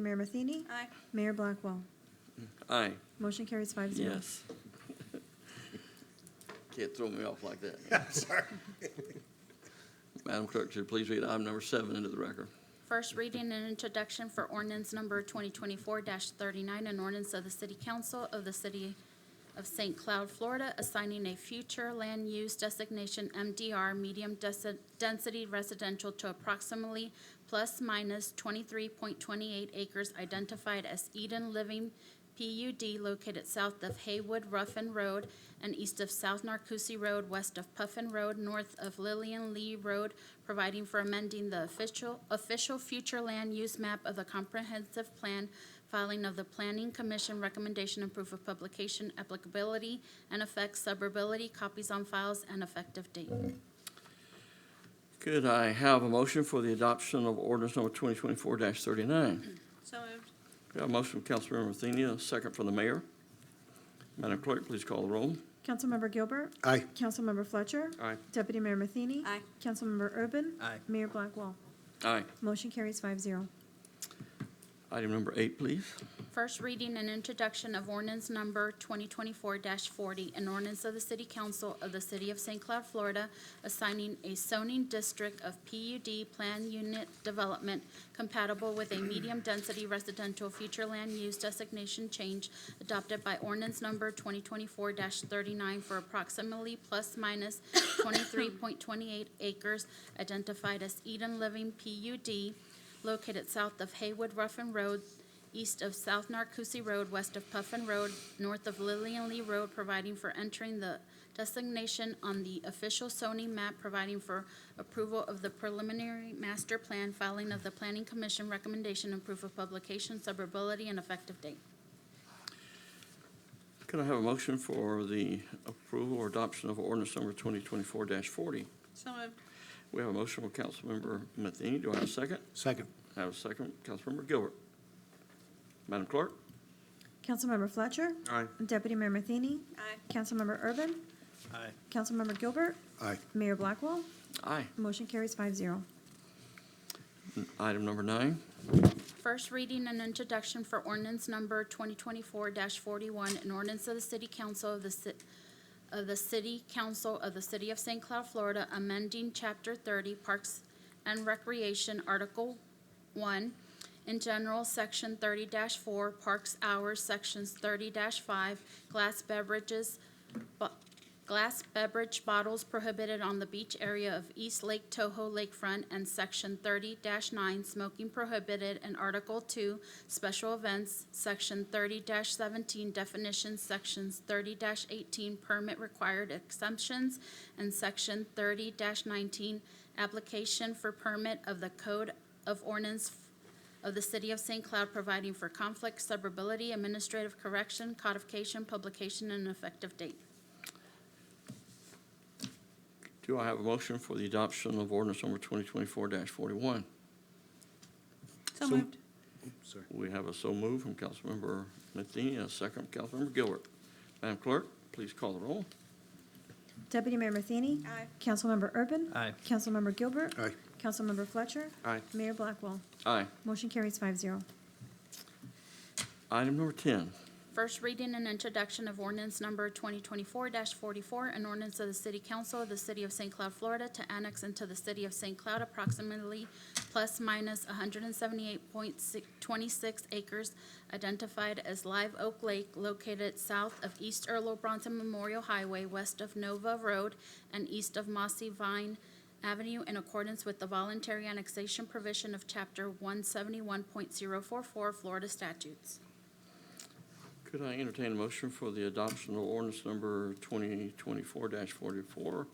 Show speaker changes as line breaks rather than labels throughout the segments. Mayor Matheny?
Aye.
Mayor Blackwell?
Aye,
Motion carries five zero.
yes. Can't throw me off like that.
Sorry.
Madam Clerk, should you please read item number seven into the record?
First reading and introduction for ordinance number 2024-39, an ordinance of the City Council of the City of St. Cloud, Florida, assigning a future land use designation MDR medium desi- density residential to approximately plus minus 23.28 acres identified as Eden Living PUD located south of Haywood Ruffin Road and east of South Narcousie Road, west of Puffin Road, north of Lillian Lee Road, providing for amending the official, official future land use map of the comprehensive plan, filing of the Planning Commission recommendation and proof of publication, applicability and effects, suburbility, copies on files, and effective date.
Could I have a motion for the adoption of ordinance number twenty twenty-four thirty-nine?
So moved.
Got a motion from Councilmember Matheny, a second from the mayor. Madam Clerk, please call the roll.
Councilmember Gilbert?
Aye.
Councilmember Fletcher?
Aye.
Deputy Mayor Matheny?
Aye.
Councilmember Urban?
Aye.
Mayor Blackwell?
Aye.
Motion carries five zero.
Item number eight, please.
First reading and introduction of ordinance number 2024-40, an ordinance of the City Council of the City of St. Cloud, Florida, assigning a zoning district of PUD plan unit development compatible with a medium-density residential future land use designation change adopted by ordinance number 2024-39 for approximately plus minus 23.28 acres identified as Eden Living PUD located south of Haywood Ruffin Road, east of South Narcousie Road, west of Puffin Road, north of Lillian Lee Road, providing for entering the designation on the official zoning map, providing for approval of the preliminary master plan, filing of the Planning Commission recommendation and proof of publication, suburbility, and effective date.
Could I have a motion for the approval or adoption of ordinance number twenty twenty-four forty?
So moved.
We have a motion from Councilmember Matheny. Do I have a second?
Second.
I have a second, Councilmember Gilbert. Madam Clerk?
Councilmember Fletcher?
Aye.
Deputy Mayor Matheny?
Aye.
Councilmember Urban?
Aye.
Councilmember Gilbert?
Aye.
Mayor Blackwell?
Aye.
Motion carries five zero.
Item number nine.
First reading and introduction for ordinance number 2024-41, an ordinance of the City Council of the Ci- of the City Council of the City of St. Cloud, Florida, amending Chapter 30 Parks and Recreation, Article 1, in general, Section 30-4, Parks Hours, Sections 30-5, Glass Beverages, bu- Glass beverage bottles prohibited on the beach area of East Lake Toho Lakefront and Section thirty nine, smoking prohibited, and Article two, special events, Section thirty seventeen, definitions, Sections thirty eighteen, permit required exemptions, and Section thirty nineteen, application for permit of the Code of Ordinance of the City of St. Cloud providing for conflict, suburbility, administrative correction, codification, publication, and effective date.
Do I have a motion for the adoption of ordinance number twenty twenty-four forty-one?
So
So-
moved.
Sorry.
We have a so move from Councilmember Matheny, a second from Councilmember Gilbert. Madam Clerk, please call the roll.
Deputy Mayor Matheny?
Aye.
Councilmember Urban?
Aye.
Councilmember Gilbert?
Aye.
Councilmember Fletcher?
Aye.
Mayor Blackwell?
Aye.
Motion carries five zero.
Item number ten.
First reading and introduction of ordinance number 2024-44, an ordinance of the City Council of the City of St. Cloud, Florida, to annex into the City of St. Cloud approximately plus minus 178.26 acres identified as Live Oak Lake located south of East Earl Bronson Memorial Highway, west of Nova Road, and east of Mossy Vine Avenue in accordance with the voluntary annexation provision of Chapter 171.044 Florida statutes.
Could I entertain a motion for the adoption of ordinance number twenty twenty-four forty-four?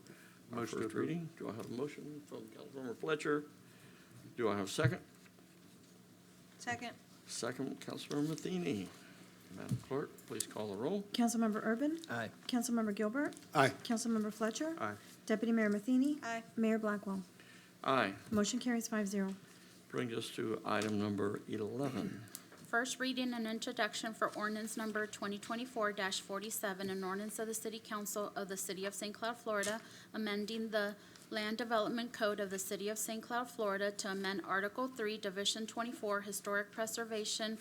Motion to
First
approve.
reading. Do I have a motion from Councilmember Fletcher? Do I have a second?
Second.
Second, Councilmember Matheny. Madam Clerk, please call the roll.
Councilmember Urban?
Aye.
Councilmember Gilbert?
Aye.
Councilmember Fletcher?
Aye.
Deputy Mayor Matheny?
Aye.
Mayor Blackwell?
Aye.
Motion carries five zero.
Brings us to item number 11.
First reading and introduction for ordinance number 2024-47, an ordinance of the City Council of the City of St. Cloud, Florida, amending the Land Development Code of the City of St. Cloud, Florida to amend Article Three, Division twenty-four, Historic Preservation